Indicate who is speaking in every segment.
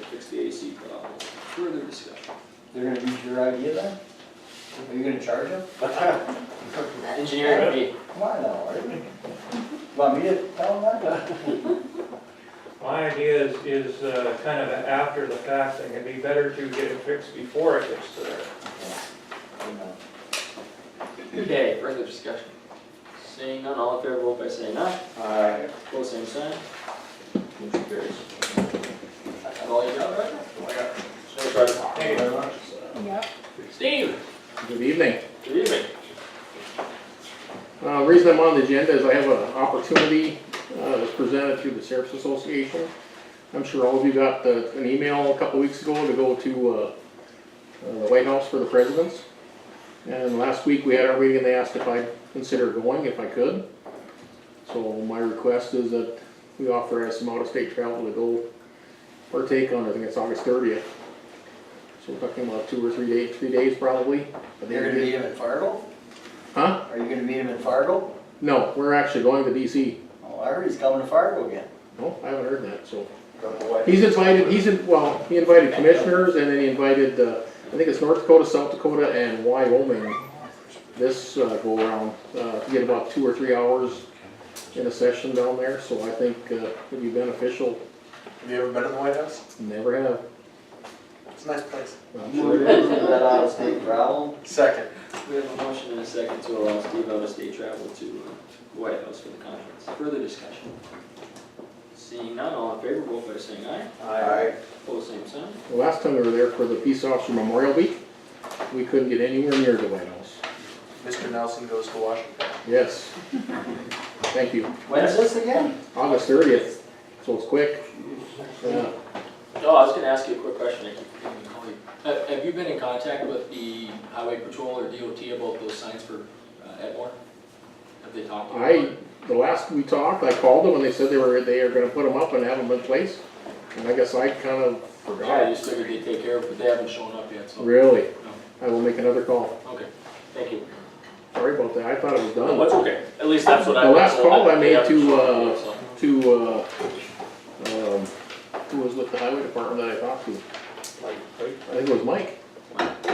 Speaker 1: HVAC problem. Further discussion.
Speaker 2: They're gonna use your idea then? Are you gonna charge them?
Speaker 3: Engineering fee.
Speaker 2: Come on now, Art. Want me to tell them that?
Speaker 4: My idea is, is uh, kind of an after the fact thing, it'd be better to get it fixed before it gets to there.
Speaker 3: Okay, further discussion. Seeing none, all in favor, vote by saying aye.
Speaker 2: Alright.
Speaker 3: Pull the same sign. Motion carries. That's all you got, right? Sorry, sorry.
Speaker 2: Thank you very much.
Speaker 5: Yep.
Speaker 3: Steve,
Speaker 6: Good evening.
Speaker 3: good evening.
Speaker 6: Uh, the reason I'm on the agenda is I have an opportunity, uh, that's presented through the Sheriff's Association. I'm sure all of you got the, an email a couple weeks ago to go to, uh, uh, the White House for the Presidents. And last week we had our meeting and they asked if I'd consider going, if I could. So my request is that we authorize some out-of-state travel to go partake on, I think it's August thirtieth. So we're talking about two or three days, three days probably. But
Speaker 2: You're gonna meet him in Fargo?
Speaker 6: Huh?
Speaker 2: Are you gonna meet him in Fargo?
Speaker 6: No, we're actually going to DC.
Speaker 2: Oh, I heard he's coming to Fargo again.
Speaker 6: No, I haven't heard that, so. He's invited, he's, in- well, he invited commissioners and then he invited, uh, I think it's North Dakota, South Dakota and Wyoming this uh, go around, uh, to get about two or three hours in a session down there, so I think uh, it'd be beneficial.
Speaker 7: Have you ever been in the White House?
Speaker 6: Never have.
Speaker 7: It's a nice place.
Speaker 6: I'm
Speaker 2: Sure
Speaker 6: sure.
Speaker 2: is, is that out of state travel?
Speaker 7: Second.
Speaker 3: We have a motion and a second to allow Steve out of state travel to uh, White House for the conference. Further discussion. Seeing none, all in favor, vote by saying aye.
Speaker 7: Aye.
Speaker 3: Pull the same sign.
Speaker 6: The Last time we were there for the Peace Officer Memorial Week, we couldn't get anywhere near the White House.
Speaker 7: Mr. Nelson goes to Washington.
Speaker 6: Yes. Thank you.
Speaker 2: When is this again?
Speaker 6: August thirtieth, so it's quick. Uh, Yeah.
Speaker 3: Oh, I was gonna ask you a quick question, I keep forgetting to call you. Have, Uh, have you been in contact with the highway patrol or DOT about those signs for uh, Edmore? Have they talked to you? about
Speaker 6: I,
Speaker 3: it?
Speaker 6: the last we talked, I called them and they said they were, they are gonna put them up and have them in place. And I guess I kind of
Speaker 3: Yeah, I
Speaker 6: forgot.
Speaker 3: just figured they'd take care of it, but they haven't shown up yet, so,
Speaker 6: Really? I will make another call.
Speaker 3: okay, thank you.
Speaker 6: Sorry about that. I thought it was
Speaker 3: No,
Speaker 6: done.
Speaker 3: that's okay, at least that's what I.
Speaker 6: The last
Speaker 3: was told,
Speaker 6: call I
Speaker 3: that they
Speaker 6: made
Speaker 3: haven't
Speaker 6: to,
Speaker 3: shown up
Speaker 6: uh,
Speaker 3: yet, so.
Speaker 6: To, uh, um, who was with the highway department that I talked to? I think it was Mike.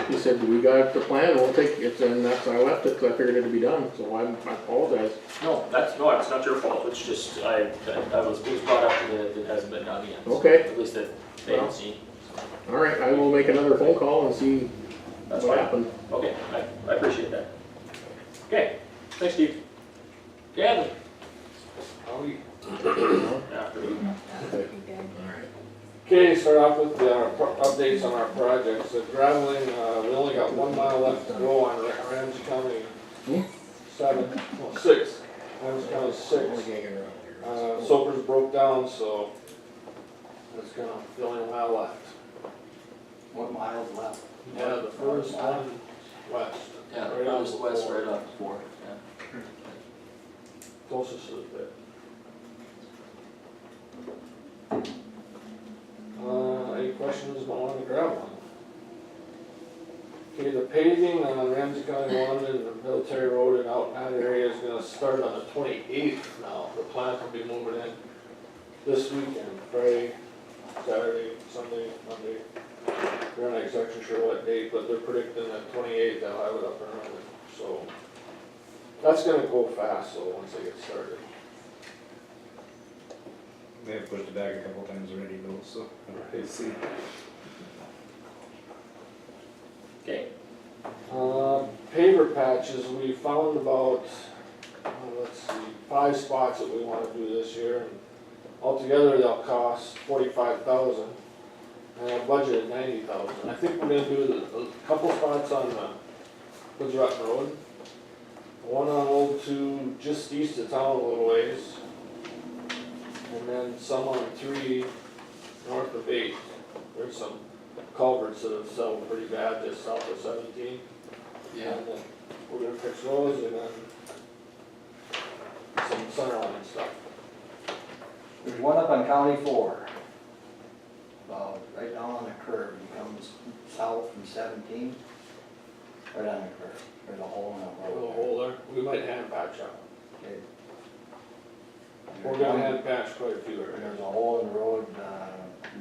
Speaker 6: He said, we got the plan, we'll take it, and that's, I left it, 'cause I figured it'd be done, so I'm- I apologize.
Speaker 3: No, that's, no, it's not your fault, it's just, I, I- I was, it was brought up that it hasn't been done yet. so
Speaker 6: Okay.
Speaker 3: At least that they haven't seen.
Speaker 6: All right, I will make another phone call and see
Speaker 3: That's
Speaker 6: what
Speaker 3: fine.
Speaker 6: happened.
Speaker 3: Okay, I, I appreciate that. Okay, thanks, Steve. Gavin? After you.
Speaker 8: Okay, start off with the uh, pro- updates on our projects. The graveling, uh, we only got one mile left to go on Ra- Ramsey
Speaker 6: Hmm?
Speaker 8: County seven, well, six, Ramsey County six. Uh, Soper's broke down, so that's gonna, the only mile left.
Speaker 2: What miles left?
Speaker 8: Yeah, the first one west,
Speaker 3: Yeah, it was west right off four, yeah.
Speaker 8: closest to the pit. Uh, any questions on the gravel? Okay, the paving on Ramsey County One and the military road and out in that area is gonna start on the twenty-eighth now. The plant will be moving in this weekend, Friday, Saturday, Sunday, Monday. We're not exactly sure what date, but they're predicting that twenty-eighth they'll have it up and running, so. That's gonna go fast though, once they get started.
Speaker 9: They have pushed it back a couple times already though, so. I see.
Speaker 3: Okay,
Speaker 8: Uh, Paver patches, we found about, uh, let's see, five spots that we wanna do this year. and Altogether, they'll cost forty-five thousand, and I budgeted ninety thousand. I think we're gonna do the- a couple spots on the Woods Rock Road. One on Old Two, just east of town a little ways. And then some on three, north of eight. There's some culverts that have settled pretty bad just south of seventeen.
Speaker 3: yeah,
Speaker 8: And then We're gonna fix those and then some centerline stuff.
Speaker 2: There's one up on County Four. About right down on the curve, it comes south from seventeen. Right on the curve, there's a hole in
Speaker 8: A
Speaker 2: the road.
Speaker 8: little hole there, we might hand patch up.
Speaker 2: Okay.
Speaker 8: We're gonna hand patch quite a few areas.
Speaker 2: There's a hole in the road, uh,